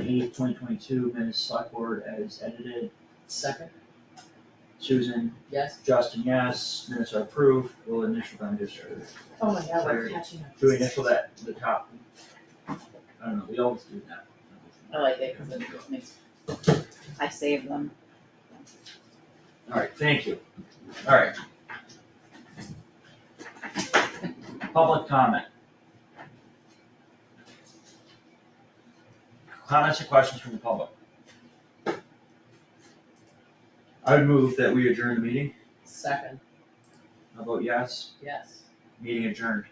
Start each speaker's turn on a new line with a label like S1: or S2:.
S1: eighth, twenty twenty-two, minutes select board as edited.
S2: Second,
S1: Susan,
S2: yes?
S1: Justin, yes, minutes are approved, we'll initial them just for,
S2: Oh my god, we're
S1: Sorry.
S2: catching up.
S1: do we initial that, the top? I don't know, we always do that.
S2: I like it, cause it makes,
S3: I saved them.
S1: Alright, thank you, alright. Public comment. Comments or questions from the public? I would move that we adjourn the meeting,
S2: second,
S1: I vote yes,
S2: yes.
S1: meeting adjourned.